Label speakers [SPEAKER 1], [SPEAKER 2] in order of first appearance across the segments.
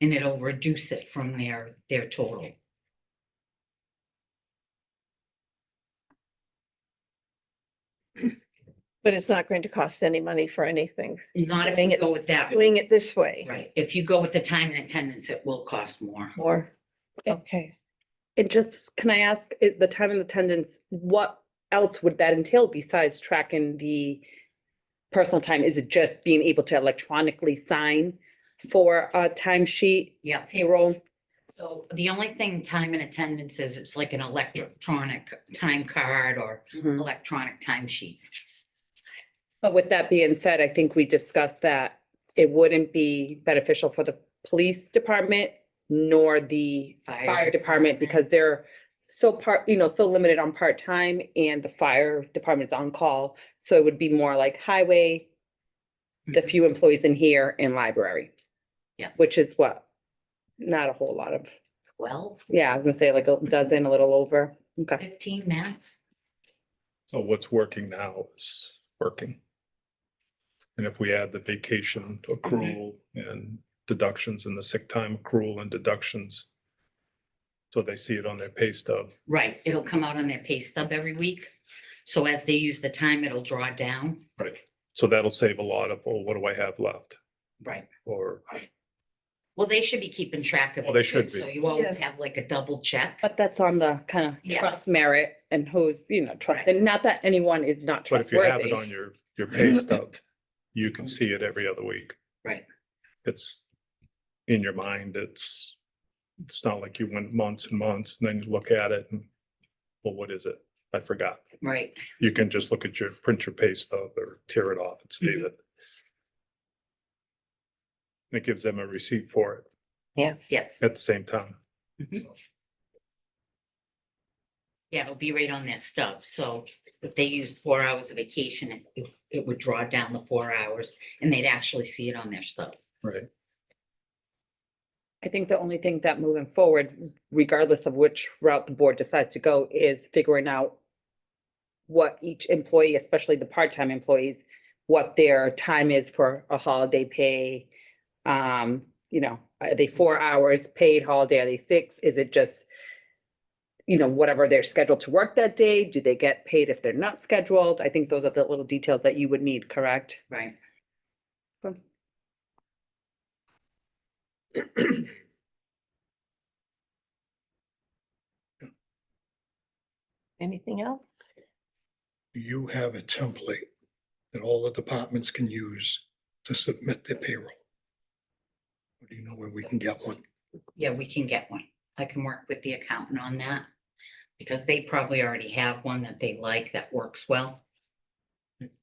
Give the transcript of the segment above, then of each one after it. [SPEAKER 1] And it'll reduce it from their, their total.
[SPEAKER 2] But it's not going to cost any money for anything,
[SPEAKER 1] Not if
[SPEAKER 2] Doing
[SPEAKER 1] you
[SPEAKER 2] it-
[SPEAKER 1] go with that,
[SPEAKER 2] doing it this way.
[SPEAKER 1] right? If you go with the time and attendance, it will cost more.
[SPEAKER 2] More,
[SPEAKER 3] Okay.
[SPEAKER 2] okay.
[SPEAKER 3] It just, can I ask, i- the time and attendance, what else would that entail besides tracking the personal time? Is it just being able to electronically sign for a timesheet
[SPEAKER 1] Yeah.
[SPEAKER 3] payroll?
[SPEAKER 1] So the only thing time and attendance is, it's like an electronic time card or electronic timesheet.
[SPEAKER 3] But with that being said, I think we discussed that it wouldn't be beneficial for the police department nor the fire department because they're so part, you know, so limited on part-time and the fire department's on call. So it would be more like highway, the
[SPEAKER 4] Mm-hmm.
[SPEAKER 1] Mhm.
[SPEAKER 3] few employees in here and library,
[SPEAKER 1] Yes,
[SPEAKER 3] which is what? Not a whole lot of,
[SPEAKER 1] twelve,
[SPEAKER 3] yeah, I was gonna say like a dozen, a little over. Okay.
[SPEAKER 1] fifteen max.
[SPEAKER 4] So what's working now is working. And if we add the vacation accrual and deductions and the sick time accrual and deductions. So they see it on their pay stub.
[SPEAKER 1] Right, it'll come out on their pay stub every week. So as they use the time, it'll draw down.
[SPEAKER 4] So that'll save a lot of, oh, what do I have left?
[SPEAKER 1] Right.
[SPEAKER 4] Or,
[SPEAKER 1] Well, they should be keeping track of.
[SPEAKER 4] Well,
[SPEAKER 1] it,
[SPEAKER 4] they should
[SPEAKER 1] too, So
[SPEAKER 4] be.
[SPEAKER 1] you always
[SPEAKER 2] Yeah.
[SPEAKER 1] have like a double check.
[SPEAKER 3] But that's on the kind of
[SPEAKER 1] Yeah.
[SPEAKER 3] trust merit and who's, you know, trusted. Not that anyone is not
[SPEAKER 4] but if you have
[SPEAKER 3] trustworthy.
[SPEAKER 4] it on your, your pay stub, you can see it every other week.
[SPEAKER 1] Right.
[SPEAKER 4] It's in your mind, it's, it's not like you went months and months and then you look at it and, well, what is it? I forgot.
[SPEAKER 1] Right,
[SPEAKER 4] you can just look at your, print your pay stub or tear it off and see
[SPEAKER 1] Mhm.
[SPEAKER 4] that. It gives them a receipt for it
[SPEAKER 2] Yes.
[SPEAKER 1] yes.
[SPEAKER 4] at the same time.
[SPEAKER 1] Mhm. Yeah, it'll be right on their stub. So if they used four hours of vacation, it- it, it would draw down the four hours and they'd actually see it on their stub.
[SPEAKER 4] Right.
[SPEAKER 3] I think the only thing that moving forward, regardless of which route the board decides to go, is figuring out what each employee, especially the part-time employees, what their time is for a holiday pay. Um, you know, are they four hours paid holiday? Are they six? Is it just, you know, whatever they're scheduled to work that day? Do they get paid if they're not scheduled? I think those are the little details that you would need, correct?
[SPEAKER 1] Right.
[SPEAKER 2] Anything else?
[SPEAKER 5] do you have a template that all the departments can use to submit their payroll? Or do you know where we can get one?
[SPEAKER 1] Yeah, we can get one. I can work with the accountant on that. Because they probably already have one that they like that works well.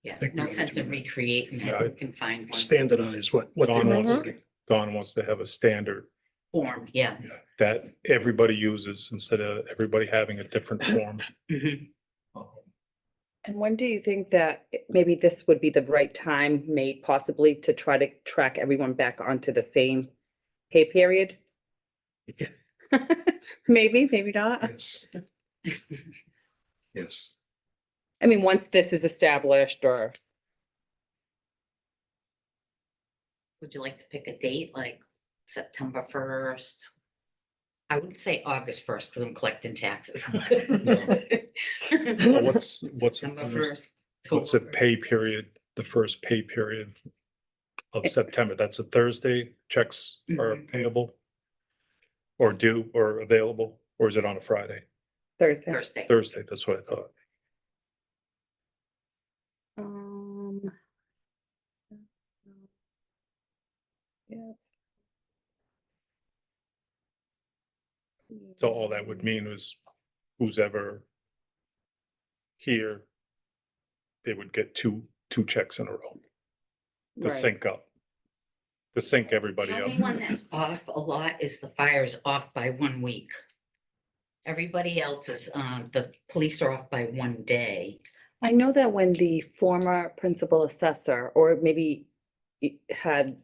[SPEAKER 1] Yeah,
[SPEAKER 5] think we
[SPEAKER 1] no
[SPEAKER 5] need
[SPEAKER 1] sense
[SPEAKER 5] to
[SPEAKER 1] in
[SPEAKER 5] do that.
[SPEAKER 1] recreating
[SPEAKER 4] Yeah,
[SPEAKER 1] that.
[SPEAKER 4] I-
[SPEAKER 1] We can find one
[SPEAKER 5] Standardize what, what they're
[SPEAKER 4] Don
[SPEAKER 2] Mhm.
[SPEAKER 5] uploading.
[SPEAKER 4] wants, Don wants to have a standard
[SPEAKER 1] form, yeah.
[SPEAKER 4] that everybody uses instead of everybody having a different form.
[SPEAKER 1] Mhm.
[SPEAKER 3] And when do you think that it- maybe this would be the right time, may possibly to try to track everyone back onto the same pay period?
[SPEAKER 5] Yeah.
[SPEAKER 3] Maybe, maybe not.
[SPEAKER 5] Yes. Yes,
[SPEAKER 3] I mean, once this is established or,
[SPEAKER 1] Would you like to pick a date like September first? I would say August first because I'm collecting taxes.
[SPEAKER 4] Well, What's, what's,
[SPEAKER 1] September
[SPEAKER 4] what's
[SPEAKER 1] 1st,
[SPEAKER 4] the
[SPEAKER 1] October
[SPEAKER 4] pay
[SPEAKER 1] 1st.
[SPEAKER 4] period, the first pay period
[SPEAKER 1] Eh.
[SPEAKER 4] of September? That's a Thursday, checks are
[SPEAKER 1] Mhm.
[SPEAKER 4] payable? Or due or available, or is it on a Friday?
[SPEAKER 3] Thursday.
[SPEAKER 1] Thursday.
[SPEAKER 4] Thursday, that's what I thought.
[SPEAKER 3] Um, yeah.
[SPEAKER 4] So all that would mean was who's ever here, they would get two, two checks in a row to
[SPEAKER 3] Right.
[SPEAKER 4] sync up. To sync everybody
[SPEAKER 1] The
[SPEAKER 4] up.
[SPEAKER 1] only one that's off a lot is the fire's off by one week. Everybody else is, uh, the police are off by one day.
[SPEAKER 3] I know that when the former principal assessor, or maybe it had,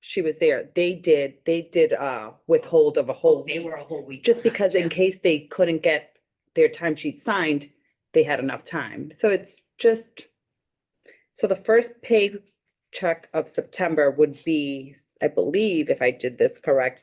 [SPEAKER 3] she was there, they did, they did uh withhold of a whole
[SPEAKER 1] Oh, They
[SPEAKER 3] week.
[SPEAKER 1] were a whole week.
[SPEAKER 3] Just
[SPEAKER 1] behind,
[SPEAKER 3] because
[SPEAKER 1] yeah.
[SPEAKER 3] in case they couldn't get their timesheet signed, they had enough time. So it's just, so the first pay check of September would be, I believe, if I did this correct,